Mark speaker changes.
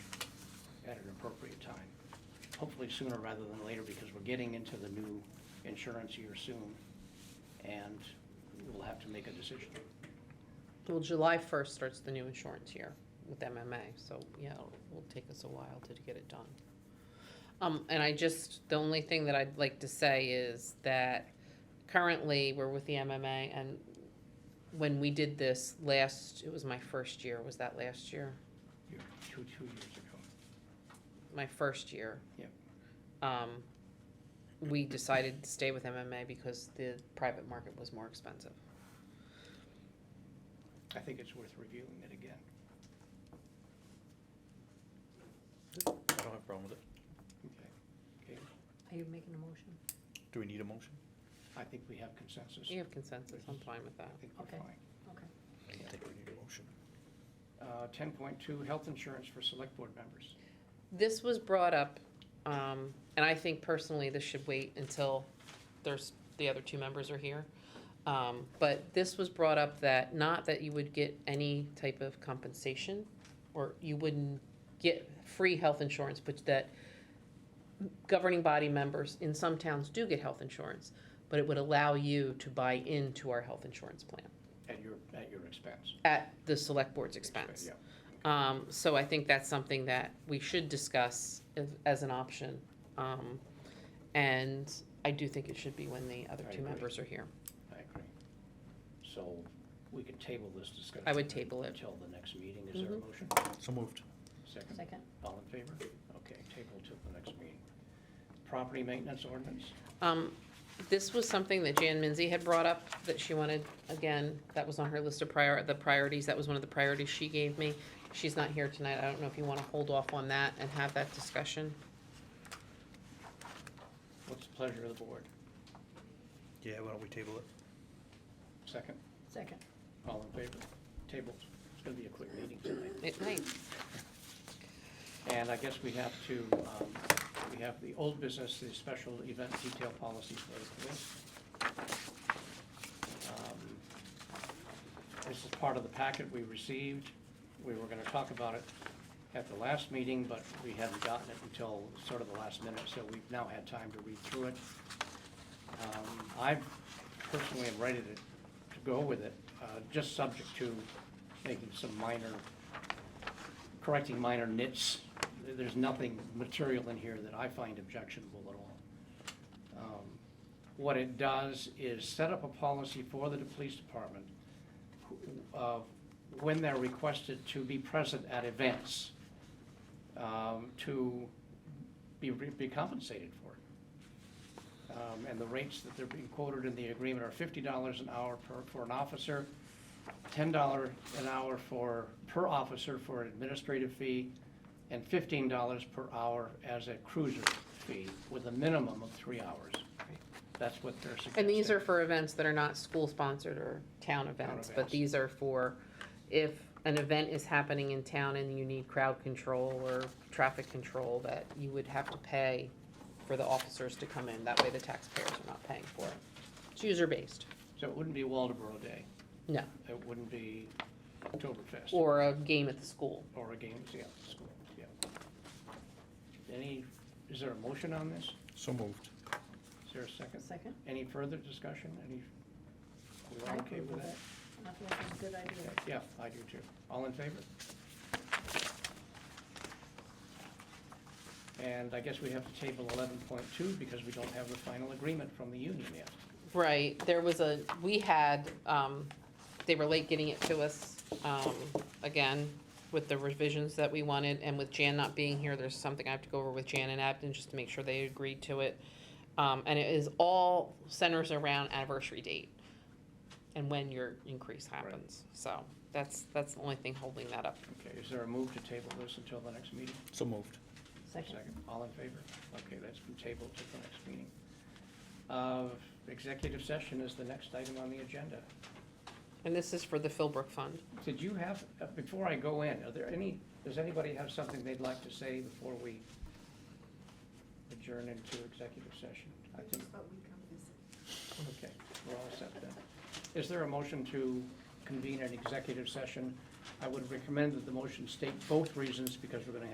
Speaker 1: hopefully sooner rather than later, because we're getting into the new insurance year soon, and we'll have to make a decision.
Speaker 2: Well, July first starts the new insurance year with MMA, so yeah, it'll it'll take us a while to get it done. Um, and I just, the only thing that I'd like to say is that currently we're with the MMA and when we did this last, it was my first year, was that last year?
Speaker 1: Here, Two, two years ago.
Speaker 2: My first year.
Speaker 1: Yep.
Speaker 2: Um, we decided to stay with MMA because the private market was more expensive.
Speaker 1: I think it's worth reviewing it again.
Speaker 3: I don't have a problem with it.
Speaker 1: Okay. Okay,
Speaker 4: Are you making a motion?
Speaker 3: Do we need a motion?
Speaker 1: I think we have consensus.
Speaker 2: You have consensus, I'm fine with
Speaker 1: I
Speaker 2: that.
Speaker 1: think we're
Speaker 4: Okay.
Speaker 1: fine. Uh,
Speaker 4: Okay.
Speaker 3: I don't think we need a motion.
Speaker 1: Ten point two, health insurance for select board members.
Speaker 2: This was brought up, um, and I think personally this should wait until there's, the other two members are here. Um, but this was brought up that, not that you would get any type of compensation, or you wouldn't get free health insurance, but that governing body members in some towns do get health insurance, but it would allow you to buy into our health insurance plan
Speaker 1: At your, at your expense.
Speaker 2: at the select board's expense.
Speaker 1: Yeah.
Speaker 2: Um, so I think that's something that we should discuss as, as an option. Um, and I do think it should be when the other
Speaker 1: I
Speaker 2: two
Speaker 1: agree.
Speaker 2: members are here.
Speaker 1: I agree. So we could table this discussion.
Speaker 2: I would table it.
Speaker 1: Until the next meeting. Is there a
Speaker 2: Mhm.
Speaker 1: motion?
Speaker 3: So moved.
Speaker 1: Second?
Speaker 4: Second.
Speaker 1: All in favor? Okay, table till the next meeting. Property maintenance ordinance?
Speaker 2: Um, this was something that Jan Minzy had brought up, that she wanted, again, that was on her list of prior, the priorities, that was one of the priorities she gave me. She's not here tonight, I don't know if you wanna hold off on that and have that discussion.
Speaker 1: What's the pleasure of the board?
Speaker 3: Yeah, why don't we table it?
Speaker 1: Second?
Speaker 4: Second.
Speaker 1: All in favor? Tabled. It's gonna be a quick meeting tonight.
Speaker 2: It might,
Speaker 1: And I guess we have to, um, we have the old business, the special event detail policies for the police. Um, This is part of the packet we received. We were gonna talk about it at the last meeting, but we hadn't gotten it until sort of the last minute, so we've now had time to read through it. Um, I personally am ready to, to go with it, uh, just subject to making some minor correcting minor nits. There- There's nothing material in here that I find objectionable at all. Um, What it does is set up a policy for the police department who- of when they're requested to be present at events, um, to be, re- be compensated for it. Um, And the rates that they're being quoted in the agreement are fifty dollars an hour per, for an officer, ten dollar an hour for, per officer for an administrative fee, and fifteen dollars per hour as a cruiser fee, with a minimum of three hours. That's what they're suggesting.
Speaker 2: And these are for events that are not school-sponsored or town events, but
Speaker 1: events.
Speaker 2: these are for if an event is happening in town and you need crowd control or traffic control, that you would have to pay for the officers to come in. That way the taxpayers are not paying for it. It's user-based,
Speaker 1: So it wouldn't be Waldeboro Day,
Speaker 2: no,
Speaker 1: it wouldn't be Oktoberfest.
Speaker 2: or a game at the school.
Speaker 1: Or a games, yeah, school, yeah. Any, is there a motion on this?
Speaker 3: So moved.
Speaker 1: Is there a second?
Speaker 4: Second.
Speaker 1: Any further discussion, any, we
Speaker 4: I
Speaker 1: all okay
Speaker 4: approve
Speaker 1: with
Speaker 4: of
Speaker 1: that?
Speaker 4: I feel like it's a good idea.
Speaker 1: Yeah, I do too. All in favor? And I guess we have to table eleven point two because we don't have the final agreement from the union yet.
Speaker 2: Right, there was a, we had, um, they were late getting it to us, um, again, with the revisions that we wanted, and with Jan not being here, there's something I have to go over with Jan and Abden, just to make sure they agreed to it. Um, and it is all centers around anniversary date, and when your increase happens, so, that's, that's the only thing holding that up.
Speaker 1: Okay, is there a move to table this until the next meeting?
Speaker 3: So moved.
Speaker 4: Second.
Speaker 1: All in favor? Okay, that's been tabled to the next meeting. Uh, executive session is the next item on the agenda.
Speaker 2: And this is for the Philbrook Fund.
Speaker 1: Did you have, uh, before I go in, are there any, does anybody have something they'd like to say before we adjourn into executive session? I think, okay, we're all set then. Is there a motion to convene an executive session? I would recommend that the motion state both reasons because we're going to have